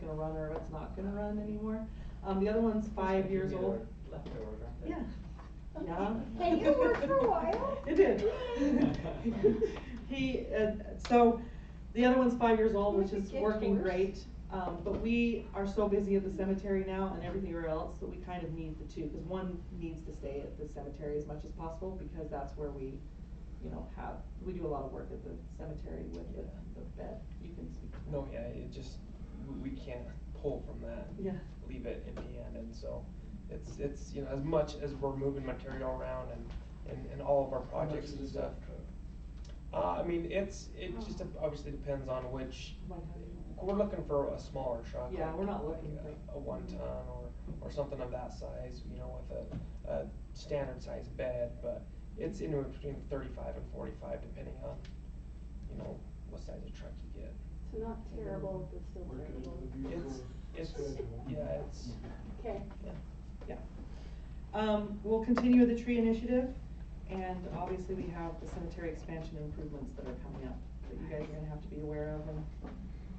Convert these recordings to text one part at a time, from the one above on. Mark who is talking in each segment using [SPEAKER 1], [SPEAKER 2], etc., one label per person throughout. [SPEAKER 1] gonna run or it's not gonna run anymore. Um, the other one's five years old.
[SPEAKER 2] Leftovers, aren't they?
[SPEAKER 1] Yeah. Yeah.
[SPEAKER 3] Hey, you worked for a while.
[SPEAKER 1] It did. He, uh, so, the other one's five years old, which
[SPEAKER 3] Would you
[SPEAKER 1] is
[SPEAKER 3] get
[SPEAKER 1] working
[SPEAKER 3] worse?
[SPEAKER 1] great. Um, but we are so busy at the cemetery now and everywhere else that we kind of need the two, cause one needs to stay at the cemetery as much as possible, because that's where we, you know, have, we do a lot of work at the cemetery with the,
[SPEAKER 2] Yeah.
[SPEAKER 1] the bed. You can speak to that.
[SPEAKER 2] No, yeah, it just, we- we can't pull from that.
[SPEAKER 1] Yeah.
[SPEAKER 2] Leave it empty-handed, so it's, it's, you know, as much as we're moving material around and, and, and all of our
[SPEAKER 4] How much
[SPEAKER 2] projects
[SPEAKER 4] is
[SPEAKER 2] and
[SPEAKER 4] a
[SPEAKER 2] stuff.
[SPEAKER 4] dump truck?
[SPEAKER 2] Uh, I mean, it's, it just dep- obviously depends on which,
[SPEAKER 1] Like how you-
[SPEAKER 2] we're looking for a smaller truck.
[SPEAKER 1] Yeah,
[SPEAKER 2] like-
[SPEAKER 1] we're not
[SPEAKER 2] like
[SPEAKER 1] looking
[SPEAKER 2] a-
[SPEAKER 1] for-
[SPEAKER 2] A one ton or, or something of that size, you know, with a, a standard size bed, but it's anywhere between thirty-five and forty-five, depending on, you know, what size of truck you get.
[SPEAKER 3] So not terrible, but still
[SPEAKER 4] Work it
[SPEAKER 3] terrible.
[SPEAKER 4] into the
[SPEAKER 2] It's,
[SPEAKER 4] vehicle
[SPEAKER 2] it's,
[SPEAKER 4] schedule.
[SPEAKER 2] yeah, it's,
[SPEAKER 3] Okay.
[SPEAKER 2] yeah.
[SPEAKER 1] Yeah. Um, we'll continue with the tree initiative, and obviously we have the cemetery expansion improvements that are coming up, that you guys are gonna have to be aware of, and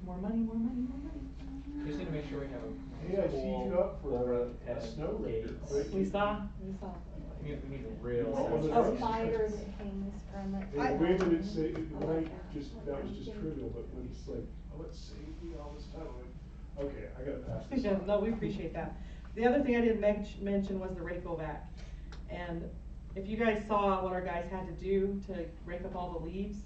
[SPEAKER 1] more money, more money, more money.
[SPEAKER 5] Just need to make sure we have
[SPEAKER 4] Hey, I
[SPEAKER 5] a
[SPEAKER 4] teed
[SPEAKER 5] full
[SPEAKER 4] you up for a,
[SPEAKER 5] overhead
[SPEAKER 4] a snow raider.
[SPEAKER 5] gates.
[SPEAKER 4] quick.
[SPEAKER 1] We saw, we saw.
[SPEAKER 5] We need, we need a
[SPEAKER 4] Oh,
[SPEAKER 5] real.
[SPEAKER 4] that's-
[SPEAKER 3] A spider that hangs from it.
[SPEAKER 4] They
[SPEAKER 1] I-
[SPEAKER 4] waited and say,
[SPEAKER 3] I
[SPEAKER 4] when
[SPEAKER 3] like
[SPEAKER 4] I
[SPEAKER 3] that.
[SPEAKER 4] just, that was just trivial, but when it's like, oh, it saved me all this time, I'm like, okay, I gotta pass this
[SPEAKER 1] Yeah,
[SPEAKER 4] on.
[SPEAKER 1] no, we appreciate that. The other thing I didn't men- mention was the Rayco vac. And if you guys saw what our guys had to do to rake up all the leaves,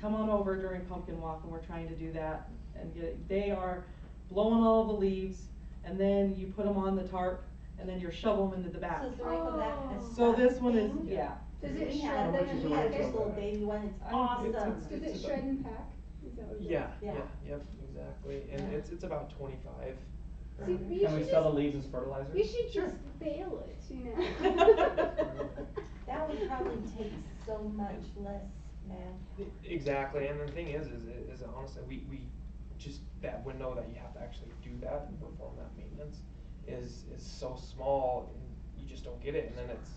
[SPEAKER 1] come on over during pumpkin walk and we're trying to do that and get, it- they are blowing all the leaves and then you put them on the tarp and then you shovel them into the back.
[SPEAKER 6] So it's the right one that has
[SPEAKER 1] So this one is,
[SPEAKER 6] nothing.
[SPEAKER 1] yeah,
[SPEAKER 6] Does
[SPEAKER 4] Yeah.
[SPEAKER 6] it
[SPEAKER 4] How
[SPEAKER 6] shred
[SPEAKER 4] much
[SPEAKER 6] them? And
[SPEAKER 4] is a
[SPEAKER 6] we had
[SPEAKER 4] rental
[SPEAKER 6] this little
[SPEAKER 4] bag?
[SPEAKER 6] baby one, it's
[SPEAKER 1] It's-
[SPEAKER 6] awesome.
[SPEAKER 1] it's-
[SPEAKER 3] Does it
[SPEAKER 2] It's
[SPEAKER 3] shred
[SPEAKER 2] about-
[SPEAKER 3] and pack? Is that what it is?
[SPEAKER 2] Yeah, yeah,
[SPEAKER 6] Yeah.
[SPEAKER 2] yep, exactly, and
[SPEAKER 6] Yeah.
[SPEAKER 2] it's, it's about twenty-five.
[SPEAKER 3] See,
[SPEAKER 2] around
[SPEAKER 3] we
[SPEAKER 2] there.
[SPEAKER 5] Can we
[SPEAKER 3] should
[SPEAKER 5] sell the
[SPEAKER 3] just-
[SPEAKER 5] leaves as fertilizer?
[SPEAKER 3] You should just bail it, you know?
[SPEAKER 6] That would probably take so much less
[SPEAKER 2] E-
[SPEAKER 6] manpower.
[SPEAKER 2] Exactly, and the thing is, is, it- is honestly, we, we, just that window that you have to actually do that and perform that maintenance is, is so small, and you just don't get it, and then it's,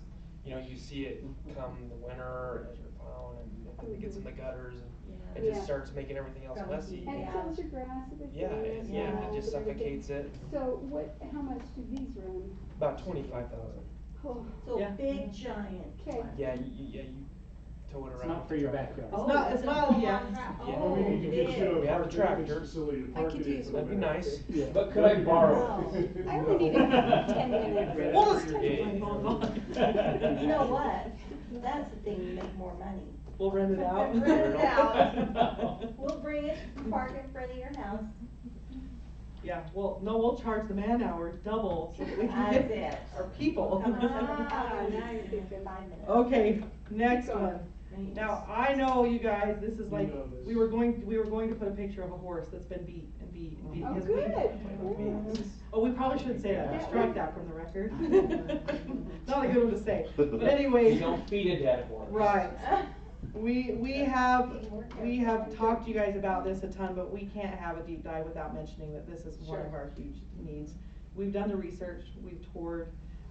[SPEAKER 2] you know, you see it come the winter as you're plowing, and it- and it gets in the gutters, and it
[SPEAKER 3] Yeah.
[SPEAKER 2] just starts making everything else
[SPEAKER 6] Grumpy.
[SPEAKER 2] messy.
[SPEAKER 3] And it
[SPEAKER 6] Yeah.
[SPEAKER 3] kills your grass if it's.
[SPEAKER 2] Yeah, it-
[SPEAKER 3] in
[SPEAKER 2] yeah,
[SPEAKER 3] there,
[SPEAKER 2] it just
[SPEAKER 3] and everything.
[SPEAKER 2] suffocates it,
[SPEAKER 3] So what, how much do these run?
[SPEAKER 2] about twenty-five thousand,
[SPEAKER 3] Oh,
[SPEAKER 6] So
[SPEAKER 1] Yeah.
[SPEAKER 6] a big giant.
[SPEAKER 3] Okay.
[SPEAKER 6] one.
[SPEAKER 2] yeah, you, you- yeah, you tow it around.
[SPEAKER 5] It's not for
[SPEAKER 2] with
[SPEAKER 5] your
[SPEAKER 2] the tractor.
[SPEAKER 5] backyard.
[SPEAKER 1] It's not-
[SPEAKER 6] Oh,
[SPEAKER 1] it's
[SPEAKER 6] a
[SPEAKER 1] not-
[SPEAKER 6] long
[SPEAKER 1] yeah.
[SPEAKER 6] tra-
[SPEAKER 2] Yeah.
[SPEAKER 4] Well,
[SPEAKER 6] Oh,
[SPEAKER 4] we need to get you
[SPEAKER 6] big.
[SPEAKER 2] We have a
[SPEAKER 4] a park and
[SPEAKER 2] tractor.
[SPEAKER 4] facility to
[SPEAKER 3] I
[SPEAKER 4] park
[SPEAKER 3] could
[SPEAKER 4] it in
[SPEAKER 3] use
[SPEAKER 4] for a
[SPEAKER 3] one.
[SPEAKER 2] That'd be
[SPEAKER 4] minute.
[SPEAKER 2] nice,
[SPEAKER 5] Yeah.
[SPEAKER 2] but could I borrow?
[SPEAKER 6] No.
[SPEAKER 3] I only need a ten minute.
[SPEAKER 1] We'll just turn
[SPEAKER 2] Yeah.
[SPEAKER 1] my phone on.
[SPEAKER 6] You know what? That's the thing, you make more money.
[SPEAKER 1] We'll rent it out.
[SPEAKER 6] Rent it
[SPEAKER 5] out.
[SPEAKER 6] We'll bring it, park it in front of your house.
[SPEAKER 1] Yeah, well, no, we'll charge the man hour double so that we can
[SPEAKER 6] That's
[SPEAKER 1] get
[SPEAKER 6] it.
[SPEAKER 1] our people.
[SPEAKER 3] Ah, now you're thinking.
[SPEAKER 6] Five minutes.
[SPEAKER 1] Okay, next
[SPEAKER 3] Keep going.
[SPEAKER 1] one. Now, I know you guys, this is
[SPEAKER 4] You
[SPEAKER 1] like,
[SPEAKER 4] know this.
[SPEAKER 1] we were going, we were going to put a picture of a horse that's been beat and beat and beat.
[SPEAKER 3] Oh,
[SPEAKER 1] because we-
[SPEAKER 3] good. yeah.
[SPEAKER 1] Oh, we probably shouldn't say that,
[SPEAKER 5] Yeah.
[SPEAKER 1] strike that from the record. Not a good one to say, but anyways.
[SPEAKER 5] You don't feed a dead horse.
[SPEAKER 1] Right. We, we have,
[SPEAKER 6] Teamwork.
[SPEAKER 1] we have talked to you guys about this a ton, but we can't have a deep dive without mentioning that this is one of
[SPEAKER 3] Sure.
[SPEAKER 1] our huge needs. We've done the research, we've toured,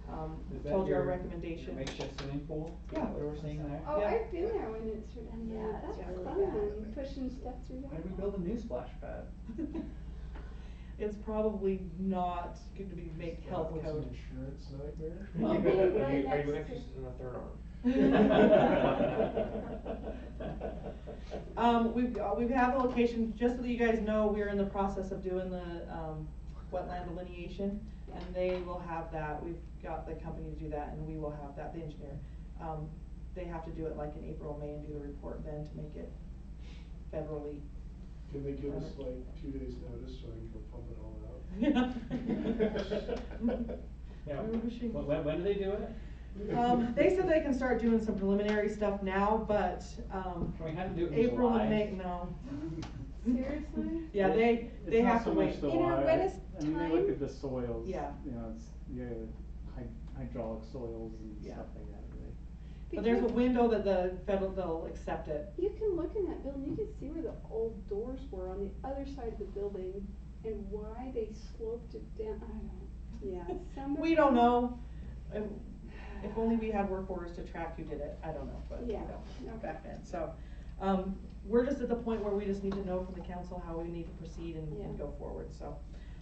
[SPEAKER 1] um,
[SPEAKER 5] Is that
[SPEAKER 1] told you our
[SPEAKER 5] your- your
[SPEAKER 1] recommendation.
[SPEAKER 5] Makeshift swimming pool?
[SPEAKER 1] Yeah.
[SPEAKER 5] What we're seeing there?
[SPEAKER 3] Oh,
[SPEAKER 1] Yeah.
[SPEAKER 3] I've been there when it's redundant.
[SPEAKER 6] Yeah, it's
[SPEAKER 3] That's
[SPEAKER 6] really
[SPEAKER 3] fun, pushing stuff through
[SPEAKER 5] Why
[SPEAKER 3] that.
[SPEAKER 5] did we build a new splash pad?
[SPEAKER 1] It's probably not going to be make health
[SPEAKER 4] That was an
[SPEAKER 1] code.
[SPEAKER 4] insurance nightmare.
[SPEAKER 5] Well,
[SPEAKER 2] Are you,
[SPEAKER 3] being
[SPEAKER 2] are
[SPEAKER 3] right
[SPEAKER 2] you are
[SPEAKER 3] next
[SPEAKER 2] you
[SPEAKER 3] to-
[SPEAKER 2] interested in a third arm?
[SPEAKER 1] Um, we've, uh, we've had the location, just so that you guys know, we're in the process of doing the, um, wetland delineation. And they will have that, we've got the company to do that and we will have that, the engineer. Um, they have to do it like in April, May and do the report then to make it federally.
[SPEAKER 4] Can they give us like two days notice so I can go pump it all out?
[SPEAKER 5] Yeah.
[SPEAKER 1] We were wishing-
[SPEAKER 5] When- When, when do they do it?
[SPEAKER 1] Um, they said they can start doing some preliminary stuff now, but, um,
[SPEAKER 5] Can we have them do it in
[SPEAKER 1] April
[SPEAKER 5] July?
[SPEAKER 1] and May, no.
[SPEAKER 3] Seriously?
[SPEAKER 1] Yeah, they,
[SPEAKER 7] It's
[SPEAKER 1] they
[SPEAKER 7] not
[SPEAKER 1] have
[SPEAKER 7] so
[SPEAKER 1] to
[SPEAKER 7] much
[SPEAKER 1] wait.
[SPEAKER 7] the
[SPEAKER 3] You know,
[SPEAKER 7] water.
[SPEAKER 3] when it's
[SPEAKER 7] I mean, they look
[SPEAKER 3] time-
[SPEAKER 7] at the soils, you
[SPEAKER 1] Yeah.
[SPEAKER 7] know, it's, yeah, hy- hydraulic soils and
[SPEAKER 1] Yeah.
[SPEAKER 7] stuff like that, right?
[SPEAKER 1] But there's a
[SPEAKER 3] Because-
[SPEAKER 1] window that the federal, they'll accept it.
[SPEAKER 3] You can look in that building, you can see where the old doors were on the other side of the building and why they sloped it down, I don't, yeah, some of.
[SPEAKER 1] We don't know. If if only we had work orders to track who did it, I don't know, but, you
[SPEAKER 3] Yeah,
[SPEAKER 1] know,
[SPEAKER 3] okay.
[SPEAKER 1] back then, so. Um, we're just at the point where we just need to know from the council how we need to proceed and, and
[SPEAKER 3] Yeah.
[SPEAKER 1] go forward, so.